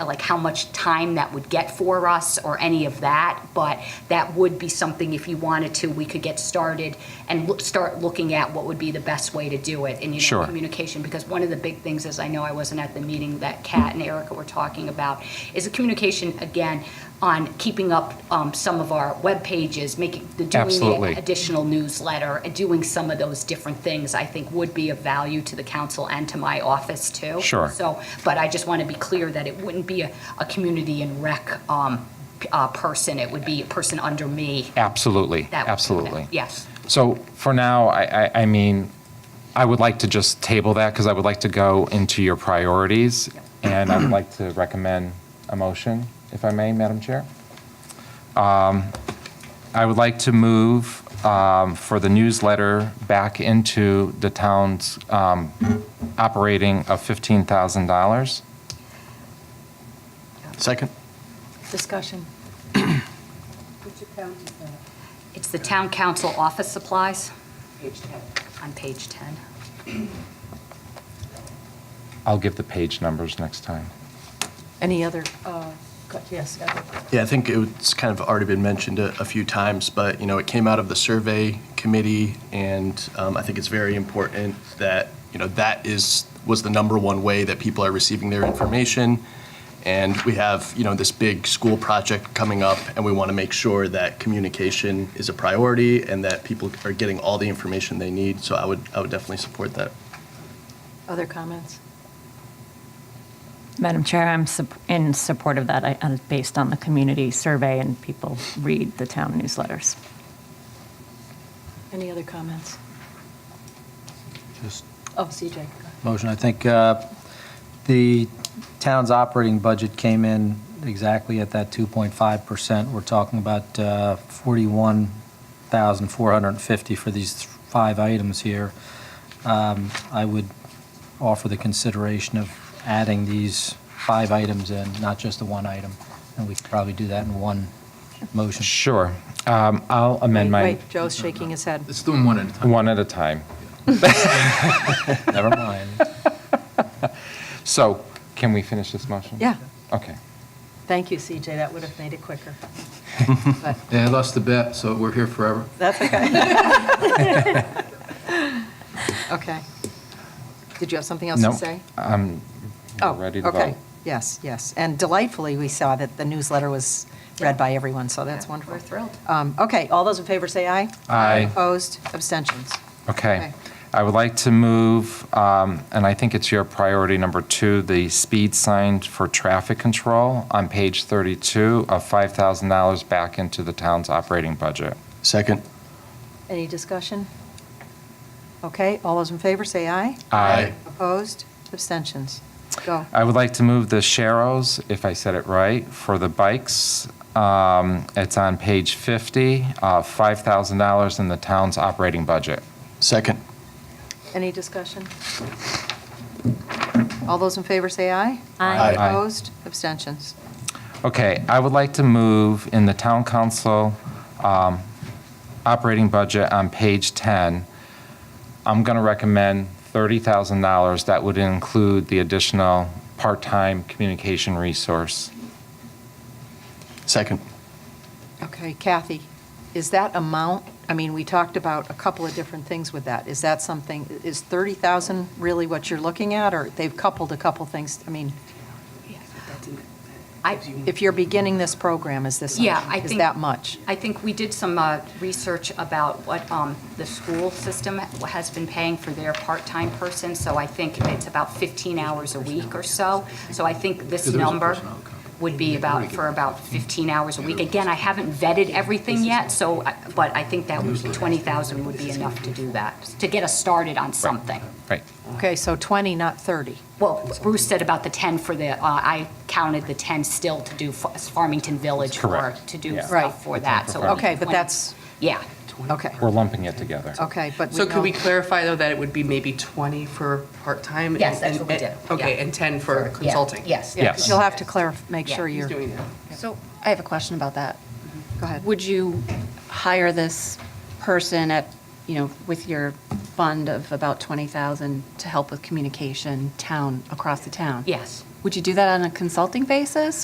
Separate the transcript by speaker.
Speaker 1: like how much time that would get for us or any of that, but that would be something, if you wanted to, we could get started and look- start looking at what would be the best way to do it. And, you know,
Speaker 2: Sure.
Speaker 1: communication, because one of the big things is, I know I wasn't at the meeting that Kat and Erica were talking about, is the communication, again, on keeping up um, some of our web pages, making, the doing
Speaker 2: Absolutely.
Speaker 1: the additional newsletter, and doing some of those different things, I think would be of value to the council and to my office, too.
Speaker 2: Sure.
Speaker 1: So, but I just want to be clear that it wouldn't be a, a community and rec um, p- uh, person. It would be a person under me. that
Speaker 2: Absolutely,
Speaker 1: would do that.
Speaker 2: absolutely.
Speaker 1: Yes.
Speaker 2: So for now, I, I, I mean, I would like to just table that because I would like to go into your priorities. And I would like to recommend a motion, if I may, Madam Chair. Um, I would like to move um, for the newsletter back into the town's um, operating of $15,000.
Speaker 3: Second?
Speaker 4: Discussion.
Speaker 5: Which account is that?
Speaker 1: It's the town council office supplies
Speaker 5: Page 10.
Speaker 1: on page 10.
Speaker 2: I'll give the page numbers next time.
Speaker 4: Any other, uh, co- yes, other-
Speaker 3: Yeah, I think it's kind of already been mentioned a, a few times, but, you know, it came out of the survey committee, and um, I think it's very important that, you know, that is, was the number one way that people are receiving their information. And we have, you know, this big school project coming up, and we want to make sure that communication is a priority and that people are getting all the information they need, so I would, I would definitely support that.
Speaker 4: other comments?
Speaker 6: Madam Chair, I'm sup- in support of that, I- uh, based on the community survey and people read the town newsletters.
Speaker 4: Any other comments?
Speaker 7: Just
Speaker 4: Oh, CJ.
Speaker 7: motion, I think uh, the town's operating budget came in exactly at that 2.5%. We're talking about uh, 41,450 for these five items here. Um, I would offer the consideration of adding these five items in, not just the one item, and we could probably do that in one motion.
Speaker 2: Sure. Um, I'll amend my,
Speaker 4: Wait, Joe's shaking his head.
Speaker 8: Let's do them one at a time.
Speaker 2: one at a time.
Speaker 7: Never mind.
Speaker 2: So, can we finish this motion?
Speaker 4: Yeah,
Speaker 2: Okay.
Speaker 4: thank you, CJ, that would have made it quicker. But
Speaker 8: Yeah, I lost the bet, so we're here forever.
Speaker 4: That's okay. Okay. Did you have something else
Speaker 2: No,
Speaker 4: to say?
Speaker 2: we're
Speaker 4: Oh,
Speaker 2: ready to
Speaker 4: okay.
Speaker 2: vote.
Speaker 4: Yes, yes. And delightfully, we saw that the newsletter was read by everyone, so that's wonderful.
Speaker 1: We're thrilled.
Speaker 4: Um, Okay, all those in favor say aye.
Speaker 2: Aye.
Speaker 4: Opposed, abstentions. Okay.
Speaker 2: Okay. I would like to move, um, and I think it's your priority number two, the speed sign for traffic control on page 32 of $5,000 back into the town's operating budget.
Speaker 3: Second?
Speaker 4: Any discussion? Okay, all those in favor say aye.
Speaker 2: Aye.
Speaker 4: Opposed, abstentions. Go.
Speaker 2: I would like to move the Sharrows, if I said it right, for the bikes. Um, It's on page 50, uh, $5,000 in the town's operating budget.
Speaker 3: Second?
Speaker 4: Any discussion? All those in favor say aye.
Speaker 3: Aye.
Speaker 2: Aye.
Speaker 4: Opposed, abstentions.
Speaker 2: Okay, I would like to move in the town council um, operating budget on page 10, I'm going to recommend $30,000. That would include the additional part-time communication resource.
Speaker 3: Second?
Speaker 4: Okay, Kathy, is that amount, I mean, we talked about a couple of different things with that. Is that something, is 30,000 really what you're looking at, or they've coupled a couple things? I mean,
Speaker 1: I,
Speaker 4: if you're beginning this program, is this,
Speaker 1: Yeah, I
Speaker 4: is
Speaker 1: think-
Speaker 4: that much?
Speaker 1: I think we did some uh, research about what um, the school system has been paying for their part-time person, so I think it's about 15 hours a week or so. So I think this
Speaker 8: Yeah, there is a
Speaker 1: number
Speaker 8: personnel account.
Speaker 1: would be about, for about 15 hours a week. Again, I haven't vetted everything yet, so, I- but I think that would- 20,000 would be enough to do that, to get us started on something.
Speaker 2: Right.
Speaker 4: Okay, so 20, not 30.
Speaker 1: Well, Bruce said about the 10 for the, uh, I counted the 10 still to do Fa- Farmington Village for,
Speaker 2: Correct.
Speaker 1: to do
Speaker 2: Yeah.
Speaker 4: Right.
Speaker 1: stuff for that. So
Speaker 4: Okay, but
Speaker 1: 20
Speaker 4: that's,
Speaker 1: Yeah.
Speaker 4: okay,
Speaker 2: We're lumping it together.
Speaker 4: okay, but we
Speaker 9: So could we
Speaker 4: know-
Speaker 9: clarify, though, that it would be maybe 20 for part-time?
Speaker 1: Yes,
Speaker 9: and-
Speaker 1: that's what we
Speaker 9: and-
Speaker 1: did,
Speaker 9: Okay,
Speaker 1: yeah.
Speaker 9: and 10 for
Speaker 1: Yeah,
Speaker 9: consulting?
Speaker 1: Yes.
Speaker 4: Yeah, 'cause
Speaker 2: Yes.
Speaker 4: You'll have to clarify, make
Speaker 1: Yeah,
Speaker 4: sure
Speaker 9: He's
Speaker 4: you're, go
Speaker 9: doing that.
Speaker 10: So I have a question about that.
Speaker 4: ahead.
Speaker 10: Would you hire this person at, you know, with your fund of about 20,000 to help with communication town, across the town?
Speaker 1: Yes.
Speaker 4: Would you do that on a consulting basis,